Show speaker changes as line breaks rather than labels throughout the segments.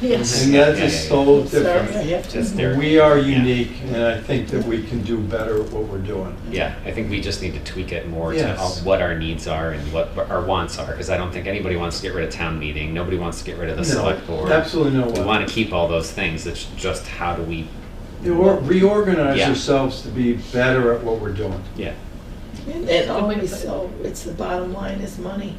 Yes.
And that's just so different.
Sorry.
Just their-
We are
yeah.
unique, and I think that we can do better at what we're doing.
Yeah, I think we just need to tweak it more to
Yes.
uh, what our needs are and what our wants are, because I don't think anybody wants to get rid of town meeting, nobody wants to get rid of the select
No,
board.
absolutely no
We
one.
want to keep all those things, it's just how do we,
You or- Reorganize
Yeah.
yourselves to be better at what we're doing.
yeah,
And always, so, it's the bottom line is money.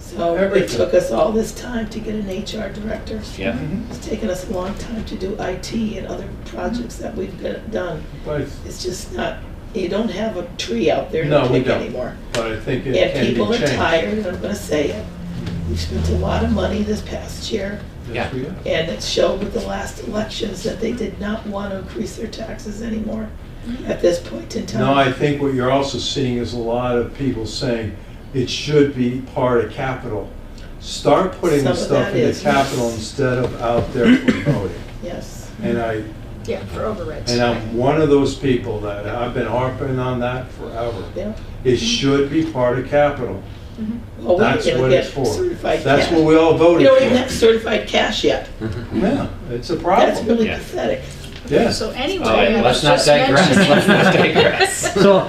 So it
Everything.
took us all this time to get an HR director.
yeah.
It's taken us a long time to do IT and other projects that we've got- done.
But,
It's just not, you don't have a tree out there to
No, we
pick
don't.
anymore.
but I think it
And
can
people
be
are
changed.
tired, I'm gonna say it. We've spent a lot of money this past year,
Yes,
Yeah.
we are.
and it showed with the last elections that they did not want to increase their taxes anymore at this point in time.
No, I think what you're also seeing is a lot of people saying it should be part of capital. Start putting
Some
the
of
stuff
that
into
is, yes.
capital instead of out there for voting.
Yes.
And I,
Yeah, for overrides.
and I'm one of those people that, I've been harping on that forever.
Yeah.
It should be part of capital.
Well, we're
That's
gonna
what
Oh, get
it's for.
certified
That's what
cash.
we all
We
voted
don't even have
for.
certified cash yet.
Yeah, it's a
That's
problem.
really
Yeah.
pathetic.
Yes.
So anyway.
All right,
I
Oh, let's
was
not
just
digress,
mentioning-
let's not digress.
So,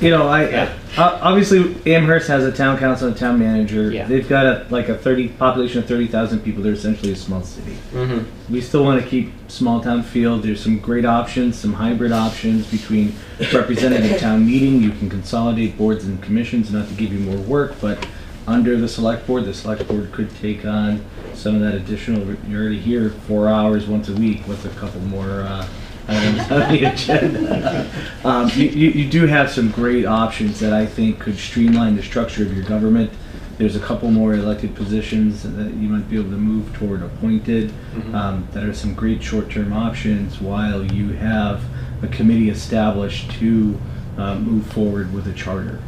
you know, I
Yeah.
uh, obviously Amherst has a town council and town manager.
Yeah.
They've got a like a thirty population of thirty thousand people. They're essentially a small city.
Mhm.
We still want to keep small town feel. There's some great options, some hybrid options between representative town meeting. You can consolidate boards and commissions, not to give you more work, but under the select board, the select board could take on some of that additional. You're already here four hours once a week. What's a couple more uh, items on the agenda? Um, you, you, you do have some great options that I think could streamline the structure of your government. There's a couple more elected positions that you might be able to move toward appointed. Um, that are some great short-term options while you have a committee established to uh, move forward with a charter.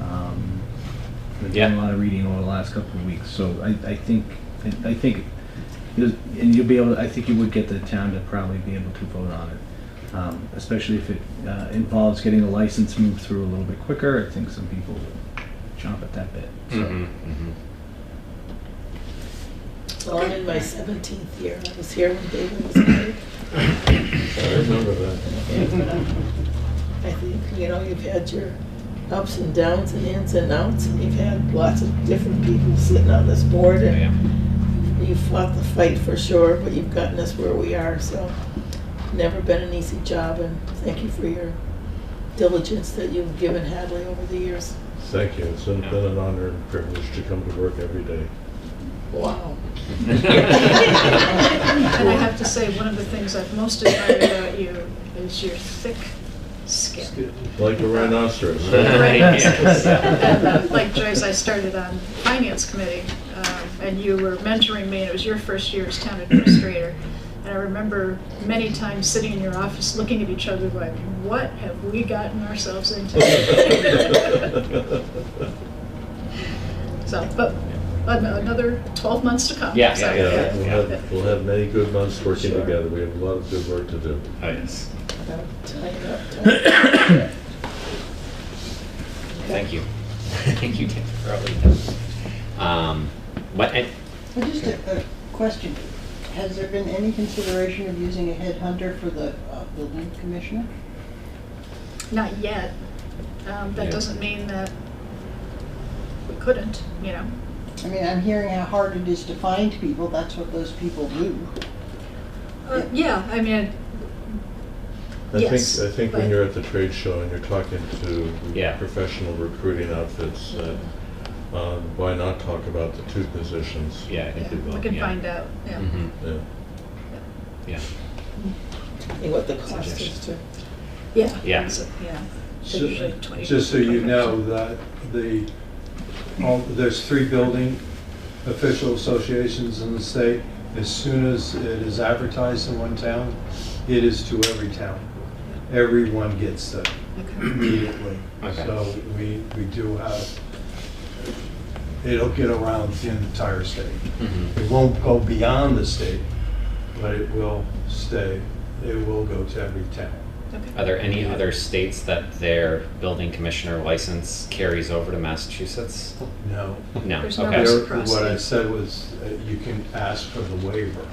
Um, I've done
Yeah.
a lot of reading over the last couple of weeks, so I, I think I- I think you'll- and you'll be able. I think you would get the town to probably be able to vote on it um, especially if it uh, involves getting a license moved through a little bit quicker. I think some people would jump at that bit. So.
Mhm, mhm.
Well, I'm in my seventeenth year. I was here when David was married.
I remember that.
And, uh, I think, you know, you've had your ups and downs and ins and outs, and you've had lots of different people sitting on this board,
Yeah,
and you fought the fight for sure, but you've gotten us where we are, so never been an easy job, and thank you for your diligence that you've given Hadley over the years.
Thank you. It's been been an honor and privilege to come to work every day.
Wow.
And I have to say, one of the things I've most admired about you is your thick skin.
Like a rhinoceros.
Right, yes.
Like Joyce, I started on finance committee, um, and you were mentoring me, and it was your first year as town administrator. And I remember many times sitting in your office, looking at each other like, what have we gotten ourselves into? So, but an- another 12 months to come.
Yeah,
So,
yeah,
Yeah,
yeah.
We'll have, we'll have many good months working
Sure.
together. We have a lot of good work to do.
Oh, yes,
About time up, time up.
thank you. Thank you, Tim, for all you do. Um, What, and-
Well, just a, a question. Has there been any consideration of using a headhunter for the uh, building commissioner?
Not yet. Um, That
Yeah.
doesn't mean that we couldn't, you know?
I mean, I'm hearing how hard it is to find people, that's what those people do.
Uh, Yeah, I mean,
I think,
Yes,
I think when
but-
you're at the trade show and you're talking
Yeah.
to professional recruiting outfits, uh, um, why not talk about the two positions?
yeah, I
yeah,
think we will,
we can
yeah.
find out, yeah.
Mhm,
Yeah.
Yeah,
And what the cost is too.
Yeah.
Yeah.
so- Yeah.
So-
Usually 20
Just so you
20%.
know that the, all- there's three building official associations in the state. As soon as it is advertised in one town, it is to every town. Everyone gets that
Okay.
immediately.
Okay.
So we, we do have, it'll get around the entire state.
mhm.
It won't go beyond the state, but it will stay, it will go to every town.
Okay.
Are there any other states that their building commissioner license carries over to Massachusetts?
No.
No,
There's no
okay.
Yes.
There- What I said was, uh, you can ask for the waiver.